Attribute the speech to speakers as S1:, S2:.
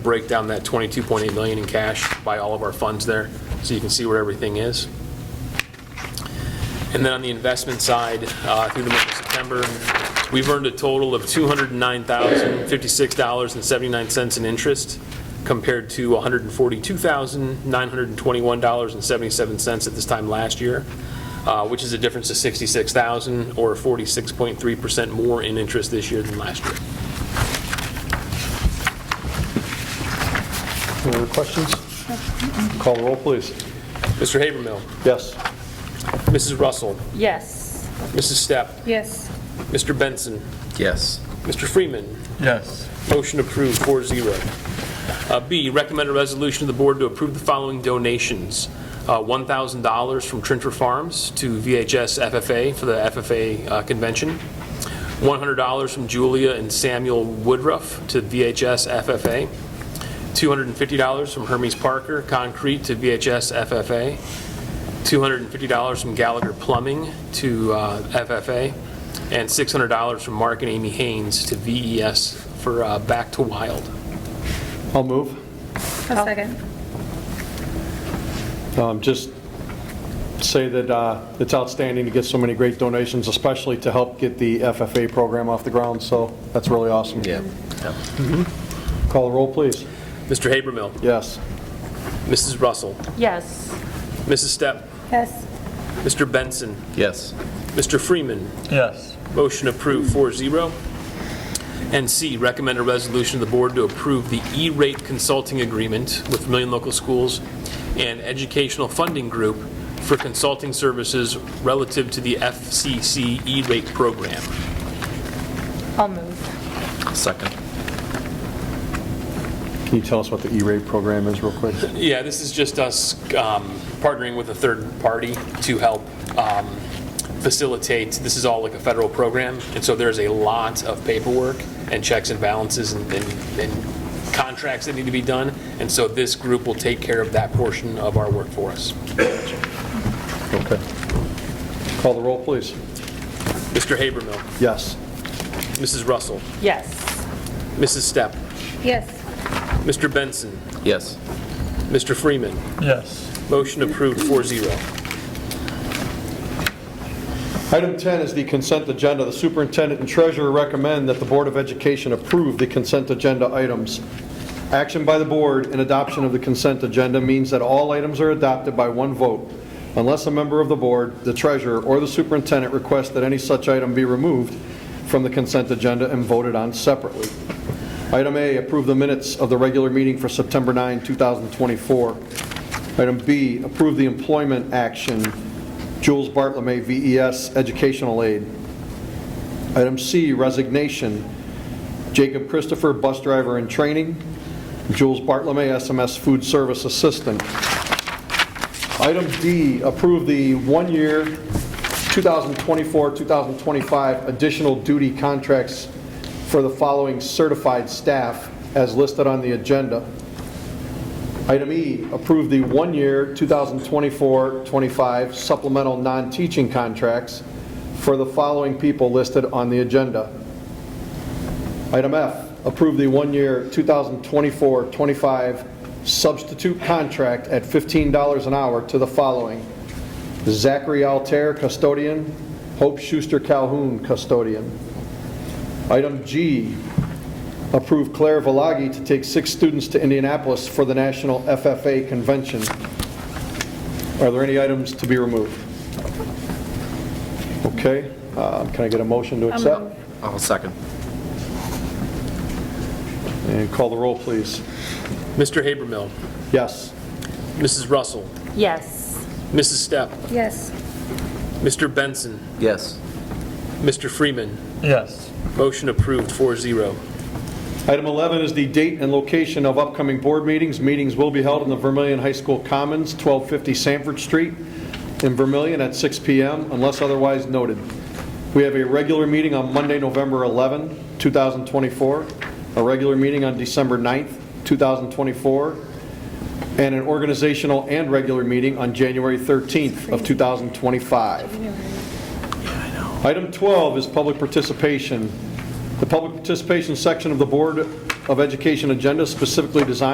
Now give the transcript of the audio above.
S1: break down that 22.8 million in cash by all of our funds there, so you can see where everything is. And then on the investment side, uh, through the month of September, we've earned a total of $209,056.79 in interest, compared to $142,921.77 at this time last year, uh, which is a difference of 66000 or 46.3% more in interest this year than last year.
S2: Any other questions? Call the roll, please.
S1: Mr. Habermill,
S2: Yes.
S1: Mrs. Russell,
S3: Yes.
S1: Mrs. Stepp,
S3: Yes.
S1: Mr. Benson,
S4: Yes.
S1: Mr. Freeman,
S4: Yes.
S1: Motion approved, 4-0. Uh, B, recommend a resolution of the board to approve the following donations. Uh, $1,000 from Trinter Farms to VHS FFA for the FFA uh, convention. $100 from Julia and Samuel Woodruff to VHS FFA. $250 from Hermes Parker Concrete to VHS FFA. $250 from Gallagher Plumbing to uh, FFA, and $600 from Mark and Amy Haynes to VES for uh, Back to Wild.
S2: I'll move.
S3: A second.
S2: Um, Just say that uh, it's outstanding to get so many great donations, especially to help get the FFA program off the ground, so that's really awesome. Mm-hmm.
S4: Yeah.
S2: Call the roll, please.
S1: Mr. Habermill,
S2: Yes.
S1: Mrs. Russell,
S3: Yes.
S1: Mrs. Stepp,
S3: Yes.
S1: Mr. Benson,
S4: Yes.
S1: Mr. Freeman,
S4: Yes.
S1: Motion approved, 4-0. And C, recommend a resolution of the board to approve the E-rate consulting agreement with Vermillion Local Schools and Educational Funding Group for consulting services relative to the FCC E-rate program.
S3: I'll move.
S4: Second.
S2: Can you tell us what the E-rate program is real quick?
S1: Yeah, this is just us um, partnering with a third party to help um, facilitate, this is all like a federal program, and so there's a lot of paperwork and checks and balances and- and and contracts that need to be done, and so this group will take care of that portion of our work for us.
S2: Okay. Call the roll, please.
S1: Mr. Habermill,
S2: Yes.
S1: Mrs. Russell,
S3: Yes.
S1: Mrs. Stepp,
S3: Yes.
S1: Mr. Benson,
S4: Yes.
S1: Mr. Freeman,
S4: Yes.
S1: motion approved 4-0.
S2: Item 10 is the consent agenda. The superintendent and treasurer recommend that the Board of Education approve the consent agenda items. Action by the board and adoption of the consent agenda means that all items are adopted by one vote, unless a member of the board, the treasurer, or the superintendent requests that any such item be removed from the consent agenda and voted on separately. Item A, approve the minutes of the regular meeting for September 9, 2024. Item B, approve the employment action, Jules Bartlome, VES E Educational Aid. Item C, resignation, Jacob Christopher, bus driver in training, Jules Bartlome, SMS food service assistant. Item D, approve the one-year 2024-2025 additional duty contracts for the following certified staff as listed on the agenda. Item E, approve the one-year 2024-25 supplemental non-teaching contracts for the following people listed on the agenda. Item F, approve the one-year 2024-25 substitute contract at $15 an hour to the following: Zachary Altair, custodian, Hope Schuster Calhoun, custodian. Item G, approve Claire Velagi to take six students to Indianapolis for the National FFA Convention. Are there any items to be removed? Okay, uh, can I get a motion to accept?
S4: I'll second.
S2: And call the roll, please.
S1: Mr. Habermill,
S2: Yes.
S1: Mrs. Russell,
S3: Yes.
S1: Mrs. Stepp,
S3: Yes.
S1: Mr. Benson,
S4: Yes.
S1: Mr. Freeman,
S4: Yes.
S1: Motion approved, 4-0.
S2: Item 11 is the date and location of upcoming board meetings. Meetings will be held in the Vermillion High School Commons, 1250 Sanford Street, in Vermillion at 6 PM, unless otherwise noted. We have a regular meeting on Monday, November 11, 2024, a regular meeting on December 9th, 2024, and an organizational and regular meeting on January 13th of 2025. Item 12 is public participation. The public participation section of the Board of Education agenda specifically designed